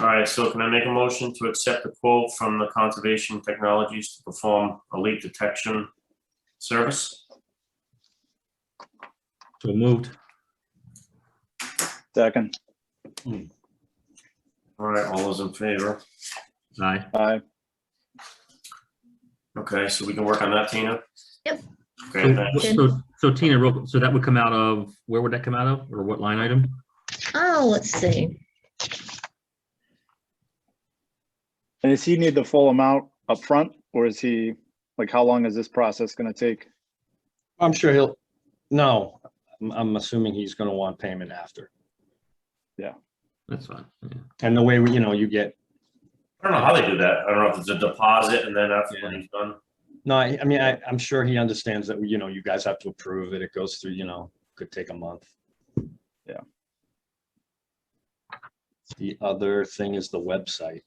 All right, so can I make a motion to accept the quote from the Conservation Technologies to perform a leak detection service? So moved. Second, All right, all those in favor? Aye. aye. Okay, so we can work on that, Tina? Yep. Okay, So- thanks. So so Tina, real- so that would come out of, where would that come out of? Or what line item? Oh, let's see. And does he need the full amount up front, or is he, like, how long is this process gonna take? I'm sure he'll, no, I'm, I'm assuming he's gonna want payment after. That's fine. yeah. And the way, we, you know, you get, I don't know how they do that. I don't know if it's a deposit and then after when he's done. no, I, I mean, I, I'm sure he understands that, you know, you guys have to approve it. It goes through, you know, could take a month. Yeah. The other thing is the website.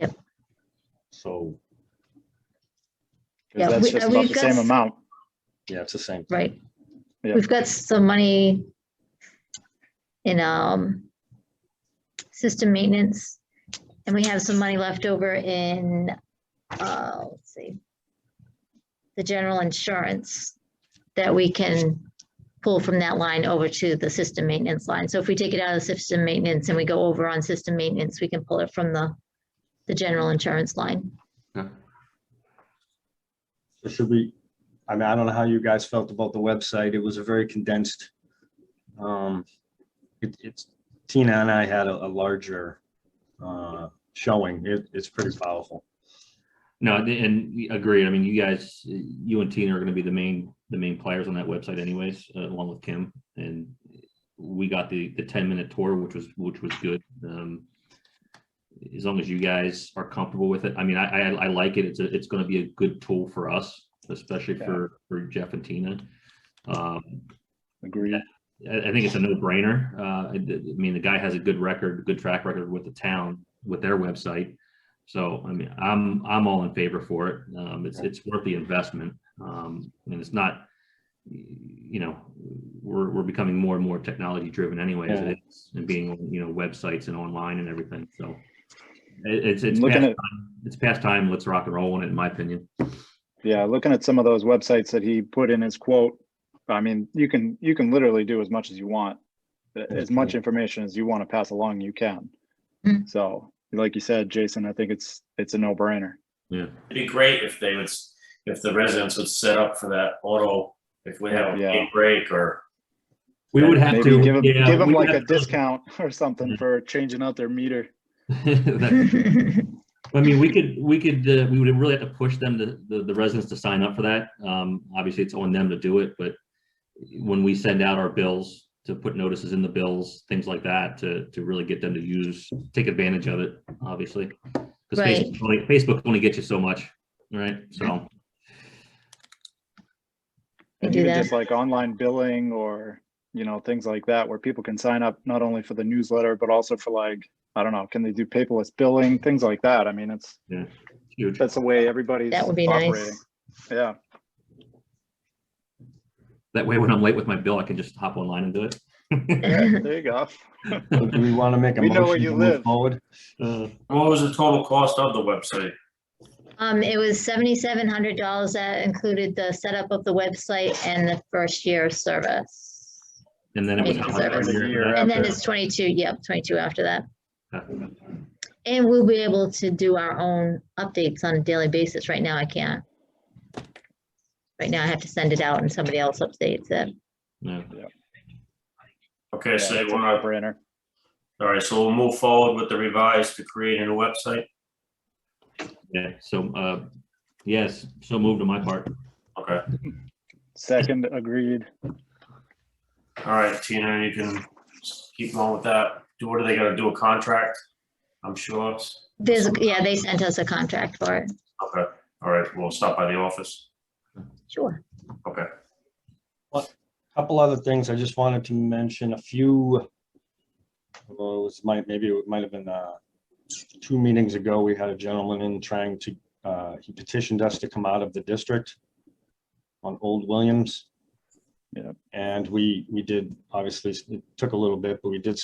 Yep. So, 'Cause Yeah, that's we- just uh, about we've the got same s- amount. yeah, it's the same. thing. Right. Yeah. We've got some money in um system maintenance. And we have some money left over in, uh, let's see. The general insurance that we can pull from that line over to the system maintenance line. So if we take it out of system maintenance and we go over on system maintenance, we can pull it from the the general insurance line. So Should we, I mean, I don't know how you guys felt about the website. It was a very condensed. um it- It's, Tina and I had a a larger uh showing. It- It's pretty powerful. No, and- and agreed. I mean, you guys, you and Tina are gonna be the main, the main players on that website anyways, uh, along with Kim. And we got the, the ten minute tour, which was, which was good. Um, As long as you guys are comfortable with it. I mean, I, I, I like it. It's, a it's gonna be a good tool for us, especially Yeah. for, for Jeff and Tina. Um, Agreed. I, I think it's a no-brainer. Uh, I, d- I mean, the guy has a good record, good track record with the town, with their website. So, I mean, I'm, I'm all in favor for it. Um, it's, it's worth the investment. Um, and it's not, y- you know, we're, we're becoming more and more technology-driven anyways, Yeah. it's- and being, you know, websites and online and everything, so. It, it's, it's past Looking at, time, it's past time. Let's rock and roll on it, in my opinion. yeah, looking at some of those websites that he put in his quote, I mean, you can, you can literally do as much as you want. A- As much information as you want to pass along, you can. Mm. So, like you said, Jason, I think it's, it's a no-brainer. Yeah. It'd be great if they would, s- if the residents would set up for that auto, if we have a Yeah. big break or, We would have Maybe to. give them, yeah, give them we'd like a have to- discount or something Mhm. for changing out their meter. That- I mean, we could, we could, uh, we would really have to push them, to- the, the residents to sign up for that. Um, obviously, it's on them to do it, but when we send out our bills, to put notices in the bills, things like that, to, to really get them to use, take advantage of it, obviously. Because Right. Facebook, only- Facebook only gets you so much, right? So, They And do even that. just like online billing or, you know, things like that, where people can sign up not only for the newsletter, but also for like, I don't know, can they do paperless billing, things like that? I mean, it's, huge. that's the way everybody's That would be operating. nice. Yeah, That way, when I'm late with my bill, I can just hop online and do it. there you go. So Do we want to make a We know where motion you to live. move forward? Uh, what was the total cost of the website? Um, it was seventy-seven hundred dollars. That included the setup of the website and the first year of service. And then it was. how much Service. earlier than that? And then it's twenty-two, yep, twenty-two after that. Okay. And we'll be able to do our own updates on a daily basis. Right now, I can't. Right now, I have to send it out and somebody else updates it. Yeah. Okay, so Yeah, they it's a want no-brainer. to, all right, so we'll move forward with the revise to create a new website. Yeah, so, uh, yes, so moved on my part. Okay, Second, agreed. all right, Tina, you can keep on with that. Do, what are they gonna do, a contract? I'm sure. There's, yeah, they sent us a contract for it. Okay, all right, we'll stop by the office. Sure. Okay. Couple other things, I just wanted to mention a few. Well, it was might, maybe it might have been, uh, two meetings ago, we had a gentleman in trying to, uh, he petitioned us to come out of the district on Old Williams. Yep. And we, we did, obviously, it took a little bit, but we did